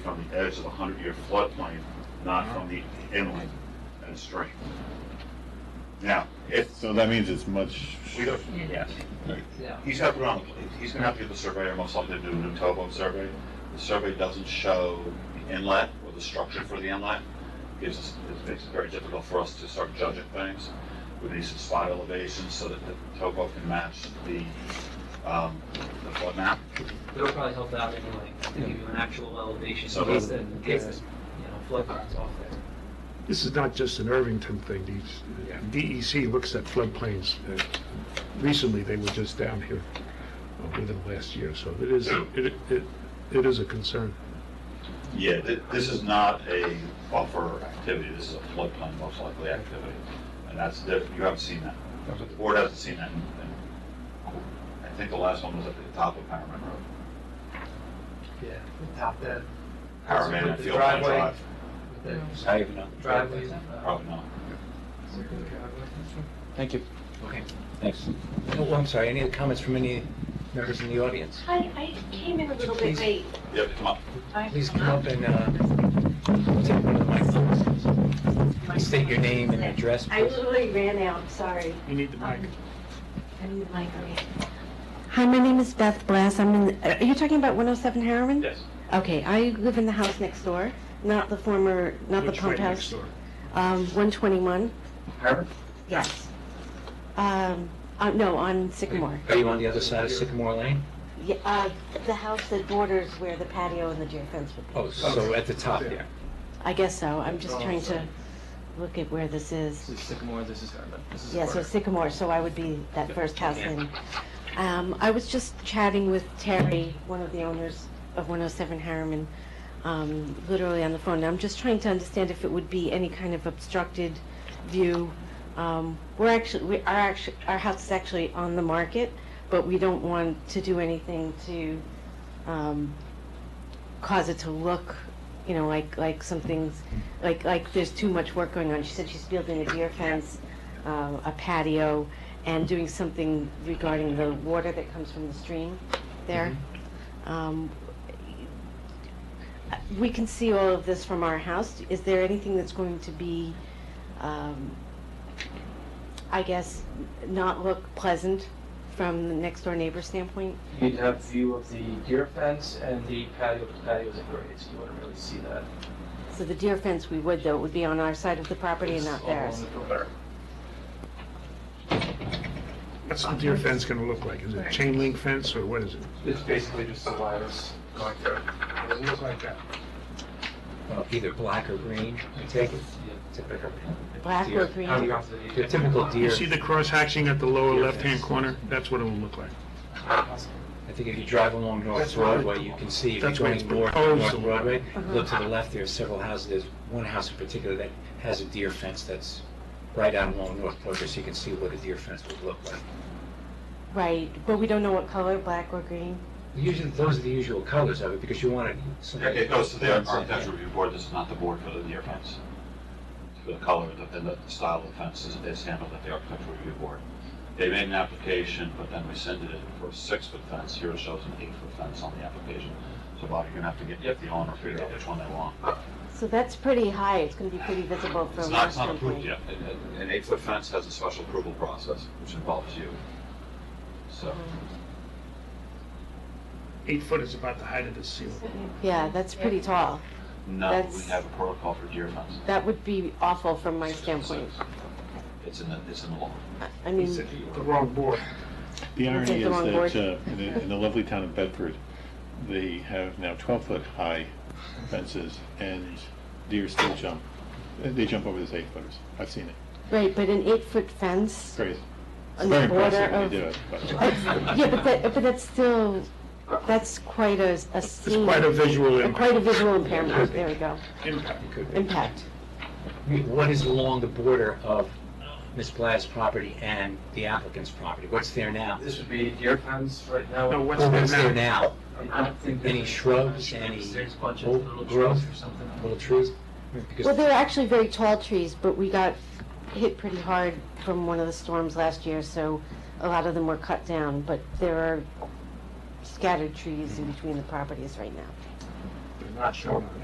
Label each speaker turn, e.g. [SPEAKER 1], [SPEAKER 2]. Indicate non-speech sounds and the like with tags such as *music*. [SPEAKER 1] from the edge of the hundred-year floodplain, not from the inland and stream. Now, if,
[SPEAKER 2] So that means it's much.
[SPEAKER 1] we don't,
[SPEAKER 3] Yes.
[SPEAKER 1] He's got to put on, he's gonna have to get the surveyor most likely to do a new towboat survey. The survey doesn't show the inlet or the structure for the inlet. Gives us, it makes it very difficult for us to start judging things. We need some spot elevations so that the towboat can match the, um, the flood map.
[SPEAKER 3] It'll probably help out anyway, to give you an actual elevation,
[SPEAKER 1] So
[SPEAKER 3] in case the,
[SPEAKER 4] that-
[SPEAKER 3] in case the, you know, flood comes off there.
[SPEAKER 4] This is not just an Irvington thing. These-
[SPEAKER 3] Yeah.
[SPEAKER 4] DEC looks at floodplains. Uh, Recently, they were just down here uh, within the last year, so it is, it, it, it is a concern.
[SPEAKER 1] Yeah, thi- this is not a buffer activity, this is a floodplain most likely activity. And that's, diff- you haven't seen that. The board hasn't seen that. in- in- I think the last one was at the top of Paramount Road.
[SPEAKER 3] Yeah. Top that.
[SPEAKER 1] Paramount
[SPEAKER 3] With
[SPEAKER 1] and
[SPEAKER 3] the
[SPEAKER 1] Field Line
[SPEAKER 3] driveway,
[SPEAKER 1] Drive, Oh.
[SPEAKER 3] with the
[SPEAKER 5] I even know.
[SPEAKER 3] Driveways.
[SPEAKER 6] uh,
[SPEAKER 1] probably not.
[SPEAKER 5] Thank you.
[SPEAKER 3] Okay.
[SPEAKER 5] Thanks. Oh, I'm sorry, any other comments from any members in the audience?
[SPEAKER 7] Hi, I came in a little bit
[SPEAKER 5] Please.
[SPEAKER 7] late.
[SPEAKER 1] You have to come up.
[SPEAKER 7] I-
[SPEAKER 5] Please come up and, uh, take one of the microphones. State your name and address,
[SPEAKER 7] I
[SPEAKER 5] please.
[SPEAKER 7] literally ran out, sorry.
[SPEAKER 4] You need the
[SPEAKER 7] mic. I need the mic, okay. Hi, my name is Beth Blass. I'm in, uh, are you talking about 107 Harriman?
[SPEAKER 1] Yes.
[SPEAKER 7] Okay, I live in the house next door, not the former, not the pump house. Um, 121,
[SPEAKER 5] Harbor?
[SPEAKER 7] yes. Um, uh, no, on Sycamore.
[SPEAKER 5] Are you on the other side of Sycamore Lane?
[SPEAKER 7] Yeah, uh, the house that borders where the patio and the deer fence would be.
[SPEAKER 5] Oh, so at the top there.
[SPEAKER 7] I guess so. I'm just trying to look at where this is.
[SPEAKER 6] This is Sycamore, this is Garden. This is
[SPEAKER 7] Yeah, so
[SPEAKER 6] Carter.
[SPEAKER 7] Sycamore, so I would be that first house in. Um, I was just chatting with Terry, one of the owners of 107 Harriman, um, literally on the phone. I'm just trying to understand if it would be any kind of obstructed view. Um, we're actually, we, our actually, our house is actually on the market, but we don't want to do anything to, um, cause it to look, you know, like, like something's, like, like there's too much work going on. She said she's building a deer fence, uh, a patio, and doing something regarding the water that comes from the stream there. Um, We can see all of this from our house. Is there anything that's going to be, um, I guess, not look pleasant from the next door neighbor's standpoint?
[SPEAKER 6] You'd have view of the deer fence and the patio, but the patio's at grade, so you wouldn't really see that.
[SPEAKER 7] So the deer fence, we would though, it would be on our side of the property and
[SPEAKER 6] It's
[SPEAKER 7] not
[SPEAKER 6] all along
[SPEAKER 7] theirs.
[SPEAKER 6] the perimeter.
[SPEAKER 4] What's the deer fence gonna look like? Is it chain link fence or what is it?
[SPEAKER 6] It's basically just the wires going through.
[SPEAKER 4] It looks like that.
[SPEAKER 5] Well, Either black or green, I take it. Typical.
[SPEAKER 7] Black or
[SPEAKER 5] Deer.
[SPEAKER 7] green?
[SPEAKER 6] How do you have to
[SPEAKER 5] Your typical
[SPEAKER 4] You
[SPEAKER 5] deer,
[SPEAKER 4] see the cross hatching at the lower left-hand corner? That's what it will look like.
[SPEAKER 5] I think if you drive along North
[SPEAKER 4] That's where it-
[SPEAKER 5] Broadway, you can see, if you're
[SPEAKER 4] that's where it's
[SPEAKER 5] going north,
[SPEAKER 4] proposed
[SPEAKER 5] North
[SPEAKER 4] to look.
[SPEAKER 5] Broadway,
[SPEAKER 7] Uh-huh.
[SPEAKER 5] look to the left, there are several houses, there's one house in particular that has a deer fence that's right out along North Broadway, so you can see what a deer fence would look like.
[SPEAKER 7] Right, but we don't know what color, black or green.
[SPEAKER 5] Usually, those are the usual colors of it, because you want it. somebody-
[SPEAKER 1] It goes to the architectural review board, this is not the board for the deer fence. For the color the- and the style of the fence is, is handled at the architectural review board. They made an application, but then rescinded it for a six-foot fence, here it shows an eight-foot fence on the application. So Bob, you're gonna have to get the owner, figure out which one they want.
[SPEAKER 7] So that's pretty high, it's gonna be pretty visible
[SPEAKER 1] It's
[SPEAKER 7] from
[SPEAKER 1] not,
[SPEAKER 7] our
[SPEAKER 1] it's not approved
[SPEAKER 7] standpoint.
[SPEAKER 1] yet. An- an- An eight-foot fence has a special approval process, which involves you. So,
[SPEAKER 4] Eight foot is about the height of the ceiling.
[SPEAKER 7] Yeah, that's pretty tall.
[SPEAKER 1] no, we
[SPEAKER 7] That's-
[SPEAKER 1] have a protocol for deer fence.
[SPEAKER 7] That would be awful from my standpoint.
[SPEAKER 1] It's in the, it's in the law.
[SPEAKER 7] I- I
[SPEAKER 4] It's
[SPEAKER 7] mean,
[SPEAKER 4] the wrong board.
[SPEAKER 2] The
[SPEAKER 7] Take
[SPEAKER 2] irony
[SPEAKER 7] the wrong
[SPEAKER 2] is
[SPEAKER 7] board.
[SPEAKER 2] that uh, in the- in the lovely town of Bedford, they have now 12-foot-high fences, and deer still jump. Uh, They jump over those eight-footers. I've seen it.
[SPEAKER 7] right, but an eight-foot fence
[SPEAKER 2] It's crazy. It's
[SPEAKER 7] on the
[SPEAKER 2] very
[SPEAKER 7] border
[SPEAKER 2] impressive when
[SPEAKER 7] of...
[SPEAKER 2] they do it. by the way.
[SPEAKER 7] That's- *laughs* Yeah, but that, but that's still, that's quite a, a
[SPEAKER 4] It's
[SPEAKER 7] scene.
[SPEAKER 4] quite a visual
[SPEAKER 7] Mm. Quite a
[SPEAKER 4] impact.
[SPEAKER 7] visual impairment, there we go,
[SPEAKER 4] Impact.
[SPEAKER 7] impact.
[SPEAKER 5] What is along the border of Ms. Blatt's property and the applicant's property? What's there now?
[SPEAKER 6] This would be deer fence right now.
[SPEAKER 4] No,
[SPEAKER 5] Or what's
[SPEAKER 4] what's
[SPEAKER 5] there
[SPEAKER 4] there now?
[SPEAKER 5] now?
[SPEAKER 6] I don't think.
[SPEAKER 5] Any
[SPEAKER 6] there's-
[SPEAKER 5] shrubs, any
[SPEAKER 6] There's a bunch of
[SPEAKER 5] old
[SPEAKER 6] little
[SPEAKER 5] growth?
[SPEAKER 6] trees or something.
[SPEAKER 5] Little trees? Because
[SPEAKER 7] Well, they're actually very tall trees, but we got hit pretty hard from one of the storms last year, so a lot of them were cut down, but there are scattered trees in between the properties right now.
[SPEAKER 4] They're not sure.